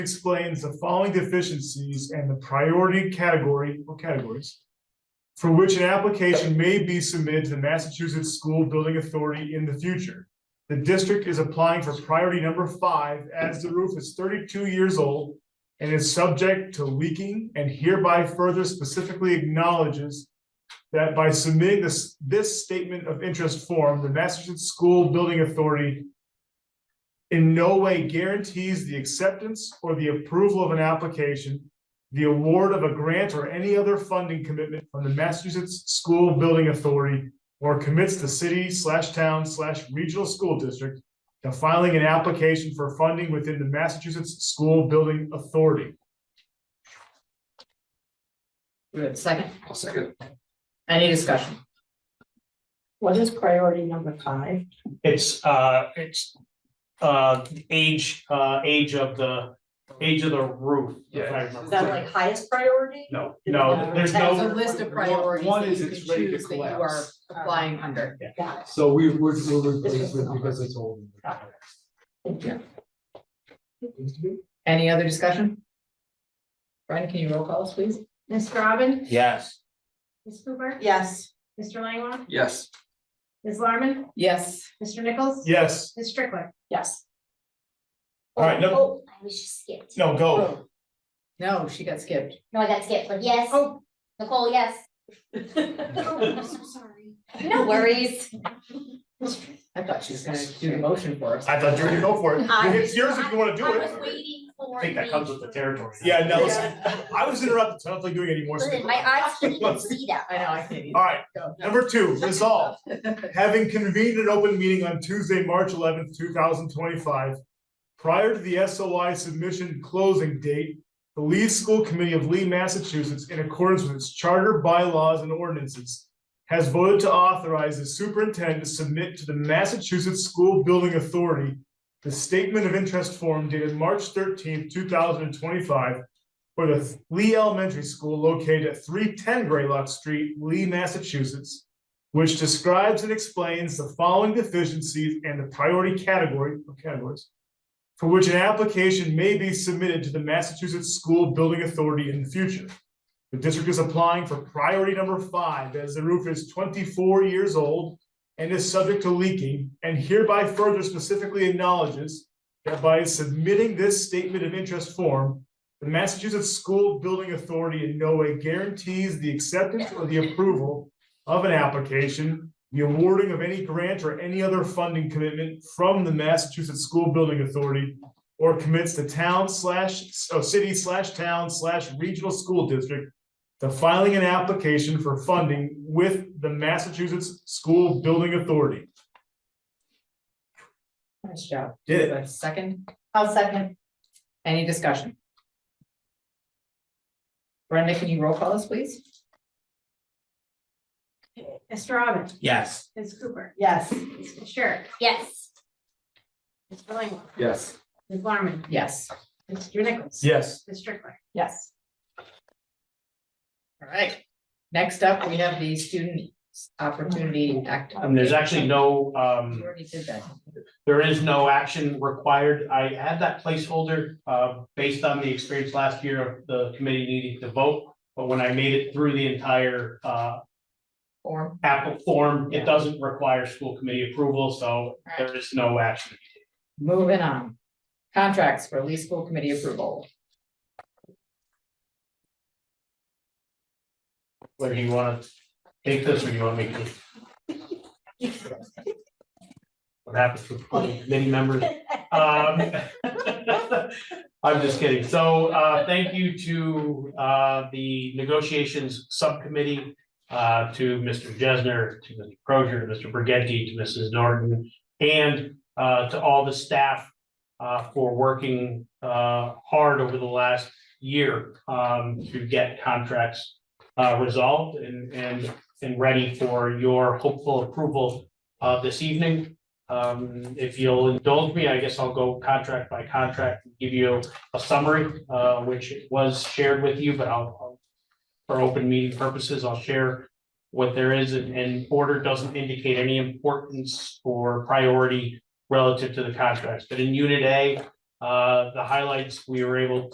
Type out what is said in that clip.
explains the following deficiencies and the priority category or categories. For which an application may be submitted to the Massachusetts School Building Authority in the future. The district is applying for priority number five as the roof is thirty-two years old. And is subject to leaking and hereby further specifically acknowledges. That by submitting this, this statement of interest form, the Massachusetts School Building Authority in no way guarantees the acceptance or the approval of an application, the award of a grant or any other funding commitment from the Massachusetts School Building Authority or commits the city slash town slash regional school district to filing an application for funding within the Massachusetts School Building Authority. We have a second? I'll second. Any discussion? What is priority number five? It's uh, it's uh, age, uh, age of the, age of the roof. if I Yeah. remember Is that like highest priority? No, no, there's That's no, a list of priorities One that is you it's can ready to choose that you are collapse. applying under. Got So we would, we'll replace it because it's old. Any other discussion? Brian, can you roll call us, please? Ms. Robin? Yes. Ms. Cooper? it. Yes. Mr. Langwell? Yes. Ms. Larmen? Yes. Mr. Nichols? Yes, Ms. Strickler? Yes. all right, no, Oh, I was just skipped. no, go. Oh. No, she got skipped. No, I got skipped, but yes. Oh. Nicole, yes. Oh, I'm so sorry. No worries. I thought she was gonna do the motion for us. I thought you were gonna go for it. It's yours if you wanna do I was it. waiting for. I think that comes with the territory. Yeah, no, listen, I was interrupted, so I don't think doing any more. Listen, my eyes can't even see that. I know, I can't All even Uh, right, go. Number two, resolve, having convened an open meeting on Tuesday, March eleventh, two thousand twenty-five. Prior to the SOI submission closing date, the Lee School Committee of Lee, Massachusetts, in accordance with its charter, bylaws, and ordinances. Has voted to authorize the superintendent to submit to the Massachusetts School Building Authority. The statement of interest form dated March thirteenth, two thousand and twenty-five for the Lee Elementary School located at three ten Graylock Street, Lee, Massachusetts, which describes and explains the following deficiencies and the priority category, or categories, for which an application may be submitted to the Massachusetts School Building Authority in the future. The district is applying for priority number five, as the roof is twenty-four years old and is subject to leaking, and hereby further specifically acknowledges that by submitting this statement of interest form, the Massachusetts School Building Authority in no way guarantees the acceptance or the approval of an application, the awarding of any grant or any other funding commitment from the Massachusetts School Building Authority or commits the town slash, oh, city slash town slash regional school district to filing an application for funding with the Massachusetts School Building Authority. Nice job. Did it. Do I have a Second, I'll second. any discussion? Brenda, can you roll call us, please? Mr. Robin? Yes. Ms. Cooper? Yes. Mr. Sherrick? Yes. Mr. Langwell? Yes. Ms. Larmen? Yes. Mr. Nichols? Yes. Ms. Strickler? Yes. All right, next up, we have the Student Opportunity Act. And Um, there's actually no, We um, already did that. there is no action required. I had that placeholder, uh, based on the experience last year of the committee needing to vote. But when I made it through the entire, uh, Form, Apple form, Yeah. it doesn't require school committee approval, so there is no action. moving on. Contracts for Lee School Committee approval. Where do you wanna take this, or you want me to? What happens with many members? Um, I'm just kidding. So, uh, thank you to, uh, the negotiations subcommittee, uh, to Mr. Jesner, to Mr. Crozier, to Mr. Brigetti, to Mrs. Norton, and, uh, to all the staff, uh, for working, uh, hard over the last year, um, to get contracts uh, resolved and, and, and ready for your hopeful approval, uh, this evening. Um, if you'll indulge me, I guess I'll go contract by contract, and give you a summary, uh, which was shared with you, but I'll, I'll- for open meeting purposes, I'll share what there is and, and order doesn't indicate any importance or priority relative to the contracts, but in unit A, Uh, the highlights, we were able